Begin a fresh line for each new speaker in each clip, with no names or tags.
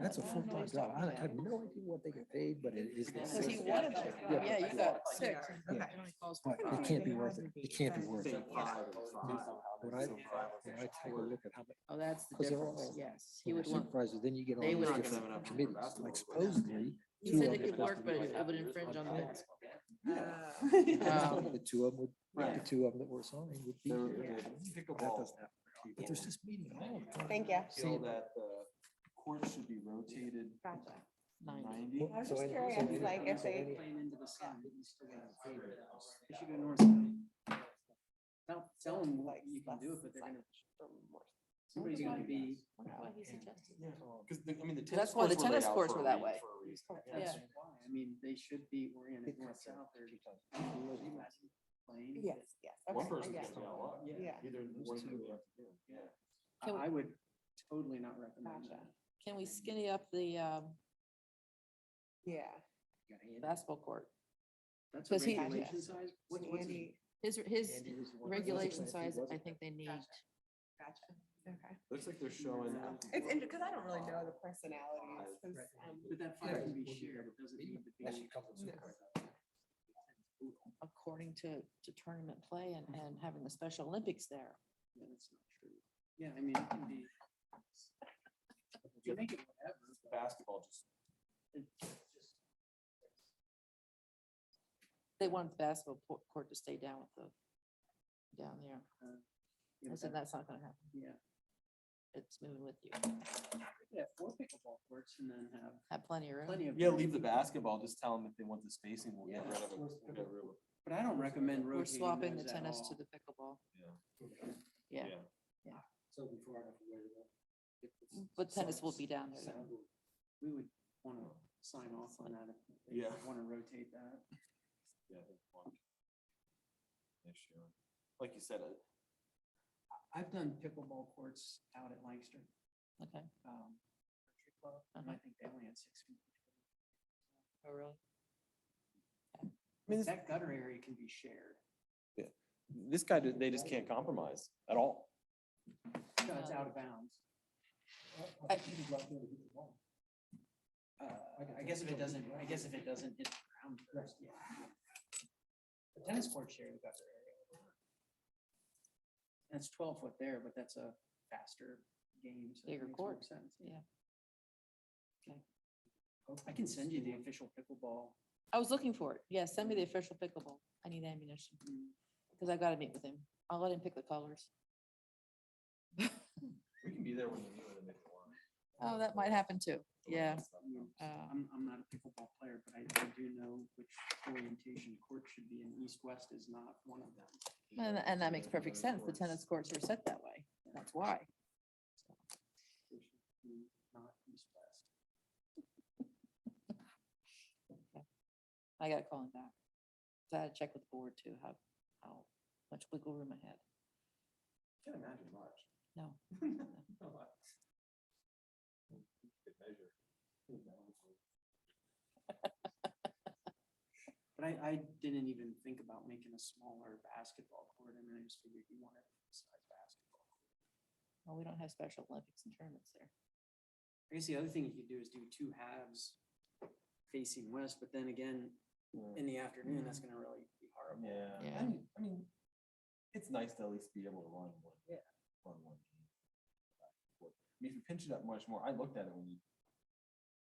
That's a full-time job. I have no idea what they get paid, but it is. the
Because he
same.
wanted them.
Yeah.
Yeah, you got six.
Yeah. But
"Oh,
it can't be worth it. It can't be worth it. When I, when I take a look at how many
Oh, that's the
'Cause they're
difference.
all-
Yes, he would want,
supervisors, then you get all
They would-
these different committees, like supposedly.
he
two
said
of
it
them-
could work, but it would infringe on things.
Oh,
The two of them would, the
Right.
two of them that were assigned would be here. But that doesn't
Pickleball.
happen. But there's this meeting all the time.
Thank you.
Feel that the courts should be rotated
Gotcha.
Ninety.
ninety.
I was
So
just
any- so
curious,
any-
like, if
so
they-
any-
Don't tell them what you can do, but they're gonna, somebody's gonna be.
Cause the, I mean, the tennis
That's why the
courts were laid
tennis
out
courts
for a
were that
reason-
way.
for a reason.
Yeah.
That's why, I mean, they should be oriented north south, they're. Can you imagine playing?
Yes, yes.
One
okay, I
person
get
gets
it.
a lot.
Yeah.
Either
Those
one
two
group
would
or-
have to do it.
yeah.
Can
I I would totally not recommend
Gotcha.
that.
Can we skinny up the um,
Yeah.
You got Andy-
basketball court?
That's
'cause
a
he-
regulation size. What-
So
what's his-
Andy,
His, his
Andy was the one that
regulation
said he
size, I
wasn't.
think they need.
Gotcha. gotcha. Okay.
Looks like they're showing.
It's interesting, because I don't really know the personalities. 'cause,
Right.
um,
But that
Yeah.
five can be shared, it doesn't need to be.
Unless you come with
No.
supervisors.
according to, to tournament play and, and having the Special Olympics there.
Yeah, that's not true. Yeah, I mean, it can be. You make it whatever, but
Basketball just.
it's just-
They wanted the basketball po- court to stay down with the, down there.
you
I
know,
said,
that-
that's not gonna happen.
Yeah.
It's moving with you.
Yeah, four pickleball courts and then have
Have plenty of room.
plenty of.
Yeah,
room.
leave the basketball, just tell them if they want the spacing, we'll get
Yeah.
rid of it. We'll get rid of it.
But I don't recommend
We're
rotating
swapping the
those at
tennis
all.
to the pickleball. Yeah.
Yeah.
Mm, But tennis will be down there. though.
So We would want to sign off on that if they
Yeah.
want to rotate that.
Yeah, I think one issue. Like you said, uh,
I've done pickleball courts out at Lancaster.
Okay.
um, country club, and I think they only had six feet.
Oh, really?
That gutter area can be shared.
this guy, did- they just can't compromise at all.
No, it's
Yeah.
out of bounds.
I-
Uh, I guess if it doesn't, I guess if it doesn't hit the ground first, yeah. The tennis court share the gutter area. That's twelve foot there, but that's a faster game. so it
Bigger
makes more
court,
sense,
yeah. Okay.
I can send you the official pickleball.
I was looking for it. Yeah, send me the official pickleball. I need ammunition because I gotta meet with him. I'll let him pick the colors.
We can be there when you do it.
Oh, that might happen too. Yeah. Uh,
I'm, I'm not a pickleball player, but I I do know which orientation court should be, and east-west is not one of them.
And, and that makes perfect sense. The tennis courts are set that way. That's why.
It should be Not east-west.
I gotta call him back. So I had to check with the board too, how, how much wiggle room I had.
Can't imagine much.
No.
But I, I didn't even think about making a smaller basketball court, and I just figured you want to size basketball. court.
Well, we don't have Special Olympics and tournaments there.
I guess the other thing you could do is do two halves facing west, but then again, in the afternoon, that's gonna really be horrible.
Yeah,
Yeah.
I mean, I mean, it's nice to at least be able to run one. Yeah. Run one. game. I mean, if you pinch it up much more, I looked at it when you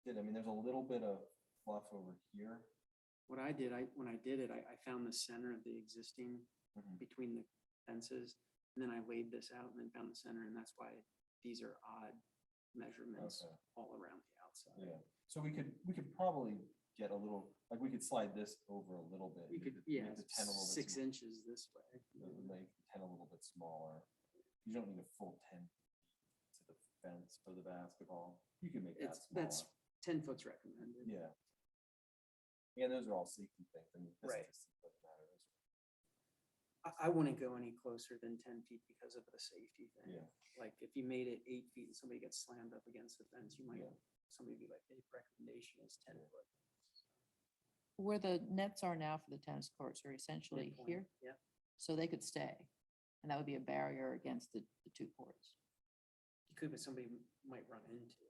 did, I mean, there's a little bit of fluff over here.
What I did, I, when I did it, I, I found the center of the existing
Mhm.
between the fences. And then I laid this out and then found the center, and that's why these are odd measurements
Okay.
all around the outside.
Yeah, so we could, we could probably get a little, like, we could slide this over a little bit.
You
make
could,
the-
yeah,
make the ten a little bit
six
sm-
inches this way.
the- the- Make the ten a little bit smaller. You don't need a full ten to the fence for the basketball. You can make that
It's, that's,
smaller.
ten foot's recommended.
Yeah. Yeah, those are all safety things. I mean, this
Right.
just doesn't matter.
I, I wouldn't go any closer than ten feet because of the safety thing.
Yeah.
Like, if you made it eight feet and somebody gets slammed up against the fence, you might,
Yeah.
somebody be like, the recommendation is ten foot.
Where the nets are now for the tennis courts are essentially
midpoint.
here,
Yeah,
so they could stay. And that would be a barrier against the, the two courts.
you could, but somebody might run into